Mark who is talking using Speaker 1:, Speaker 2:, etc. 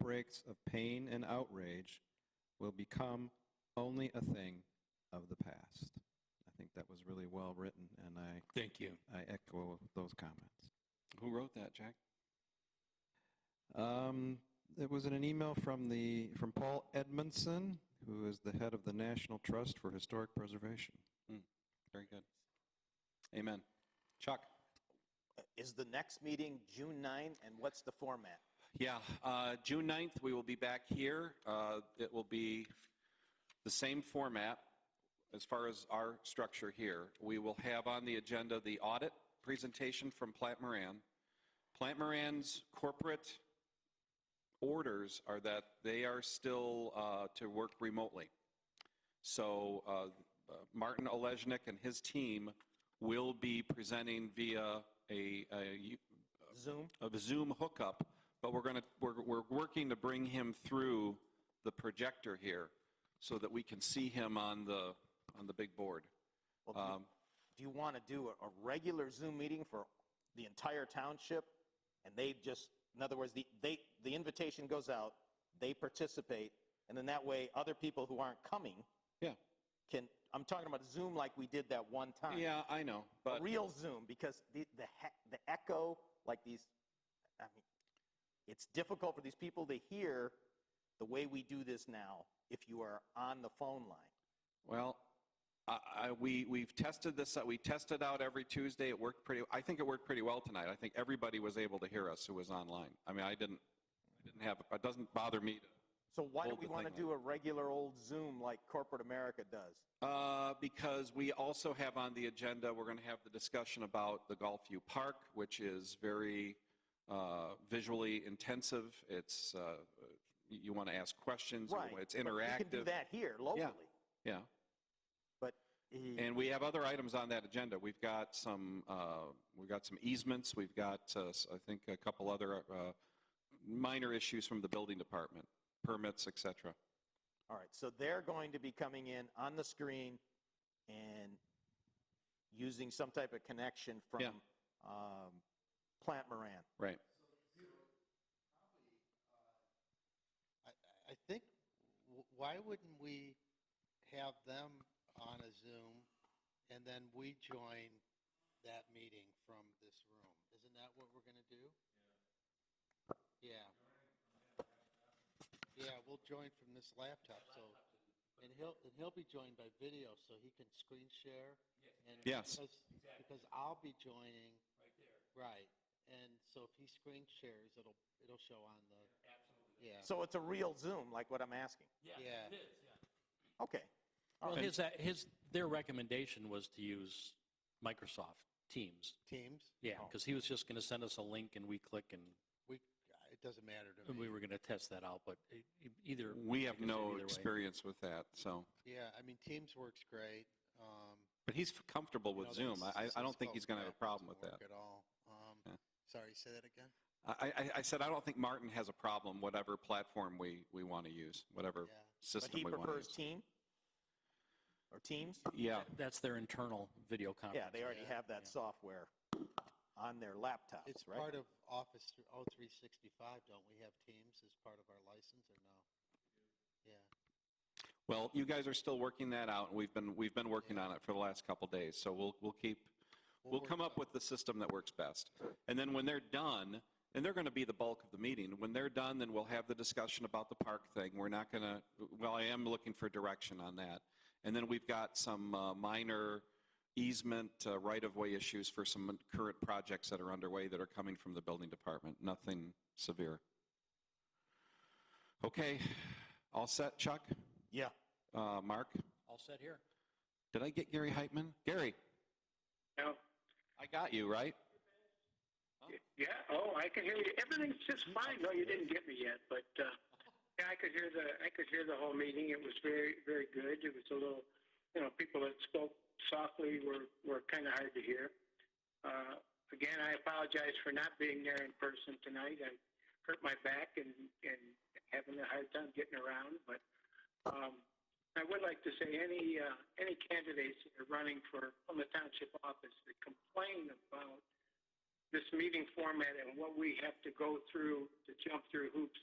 Speaker 1: outbreaks of pain and outrage will become only a thing of the past. I think that was really well written, and I,
Speaker 2: Thank you.
Speaker 1: I echo those comments.
Speaker 2: Who wrote that, Jack?
Speaker 1: Um, it was in an email from the from Paul Edmondson, who is the head of the National Trust for Historic Preservation.
Speaker 2: Very good. Amen. Chuck?
Speaker 3: Is the next meeting June 9, and what's the format?
Speaker 2: Yeah, uh, June 9th, we will be back here. Uh, It will be the same format as far as our structure here. We will have on the agenda the audit presentation from Plant Moran. Plant Moran's corporate orders are that they are still uh, to work remotely. So uh, uh, Martin Olesnik and his team will be presenting via a a u-
Speaker 3: Zoom?
Speaker 2: of a Zoom hookup, but we're going to, we're, we're working to bring him through the projector here so that we can see him on the, on the big board.
Speaker 3: Well, do-
Speaker 2: Um,
Speaker 3: Do you want to do a- a regular Zoom meeting for the entire township? And they just, in other words, the, they, the invitation goes out, they participate, and then that way, other people who aren't coming.
Speaker 2: Yeah.
Speaker 3: Can, I'm talking about Zoom like we did that one time.
Speaker 2: Yeah, I know,
Speaker 3: A
Speaker 2: but
Speaker 3: real Zoom, because the, the he- the echo, like these, I mean, it's difficult for these people to hear the way we do this now if you are on the phone line.
Speaker 2: Well, I, I, we, we've tested this, out- we tested out every Tuesday. It worked pretty, I think it worked pretty well tonight. I think everybody was able to hear us who was online. I mean, I didn't, I didn't have, it doesn't bother me to
Speaker 3: So why do
Speaker 2: Hold
Speaker 3: we
Speaker 2: the
Speaker 3: want to
Speaker 2: thing
Speaker 3: do a regular old Zoom like corporate America does?
Speaker 2: Uh, Because we also have on the agenda, we're going to have the discussion about the Golfview Park, which is very uh, visually intensive. It's, uh, you you want to ask questions, you
Speaker 3: Right,
Speaker 2: want- it's
Speaker 3: but We can do
Speaker 2: interactive.
Speaker 3: that here locally.
Speaker 2: Yeah,
Speaker 3: Eh,
Speaker 2: and we have other items on that agenda. We've got some, uh, we've got some easements, we've got, uh, s- I think, a couple other uh, minor issues from the building department, permits, et cetera.
Speaker 3: All right, so they're going to be coming in on the screen and using some type of connection from
Speaker 2: Yeah.
Speaker 3: um, Plant Moran.
Speaker 2: Right.
Speaker 4: I, I think, w- why wouldn't we have them on a Zoom and then we join that meeting from this room? Isn't that what we're gonna do? Yeah. Yeah, we'll join from this laptop, so, and he'll, and he'll be joined by video, so he can screen share. and
Speaker 2: Yes.
Speaker 4: because- Because I'll be joining. Right, and so if he screen shares, it'll, it'll show on the. Absolutely. Yeah.
Speaker 3: So it's a real Zoom, like what I'm asking.
Speaker 4: Yeah.
Speaker 3: Okay,
Speaker 5: Well,
Speaker 2: And-
Speaker 5: his, uh, his, their recommendation was to use Microsoft Teams.
Speaker 4: Teams,
Speaker 5: Yeah,
Speaker 3: Oh.
Speaker 5: because he was just going to send us a link and we click and
Speaker 4: we, uh, it doesn't matter to
Speaker 5: and we
Speaker 4: me.
Speaker 5: were going to test that out, but e- e- either.
Speaker 2: We have
Speaker 5: like I said,
Speaker 2: no
Speaker 5: either way.
Speaker 2: experience with that, so.
Speaker 4: Yeah, I mean, Teams works great. Um,
Speaker 2: But he's f- comfortable
Speaker 4: you
Speaker 2: with
Speaker 4: know,
Speaker 2: Zoom.
Speaker 4: there's-
Speaker 2: I, I- I
Speaker 4: there's
Speaker 2: don't think
Speaker 4: called
Speaker 2: he's going to have a
Speaker 4: crap, it
Speaker 2: problem with
Speaker 4: doesn't
Speaker 2: that.
Speaker 4: work At all. Um,
Speaker 2: Yeah.
Speaker 4: Sorry, say that again?
Speaker 2: I, I- I said, I don't think Martin has a problem, whatever platform we, we want to use, whatever
Speaker 4: Yeah.
Speaker 3: but
Speaker 2: system
Speaker 3: he
Speaker 2: we want to
Speaker 3: prefers
Speaker 2: use.
Speaker 3: team? Or teams?
Speaker 2: Yeah,
Speaker 5: That's their internal video conference.
Speaker 3: Yeah, they already
Speaker 4: yeah,
Speaker 3: have that
Speaker 5: yeah.
Speaker 3: software on their laptops,
Speaker 4: It's
Speaker 3: right?
Speaker 4: part of Office thr- oh, 365, don't we have Teams as part of our license or no? Yeah,
Speaker 2: well, you guys are still working that out, and we've been, we've been working on it for the last couple days, so we'll, we'll keep, we'll
Speaker 4: work
Speaker 2: come up
Speaker 4: something.
Speaker 2: with the system that works best. And then when they're done, and they're going to be the bulk of the meeting, when they're done, then we'll have the discussion about the park thing. We're not going to, well, I am looking for direction on that. And then we've got some uh, minor easement uh, right-of-way issues for some current projects that are underway that are coming from the building department, nothing severe. Okay, all set, Chuck?
Speaker 3: Yeah.
Speaker 2: Uh, Mark?
Speaker 5: All set here.
Speaker 2: Did I get Gary Heitman? Gary,
Speaker 6: No.
Speaker 2: I got you, right?
Speaker 6: Yeah. Oh, I can hear you. Everything's just fine. No, you didn't get me yet, but uh, yeah, I could hear the I could hear the whole meeting. It was very very good. It was a little, you know, people that spoke softly were were kind of hard to hear. Uh, again, I apologize for not being there in person tonight. I hurt my back and and having a hard time getting around, but. Um, I would like to say any uh, any candidates that are running for from the township office that complain about this meeting format and what we have to go through to jump through hoops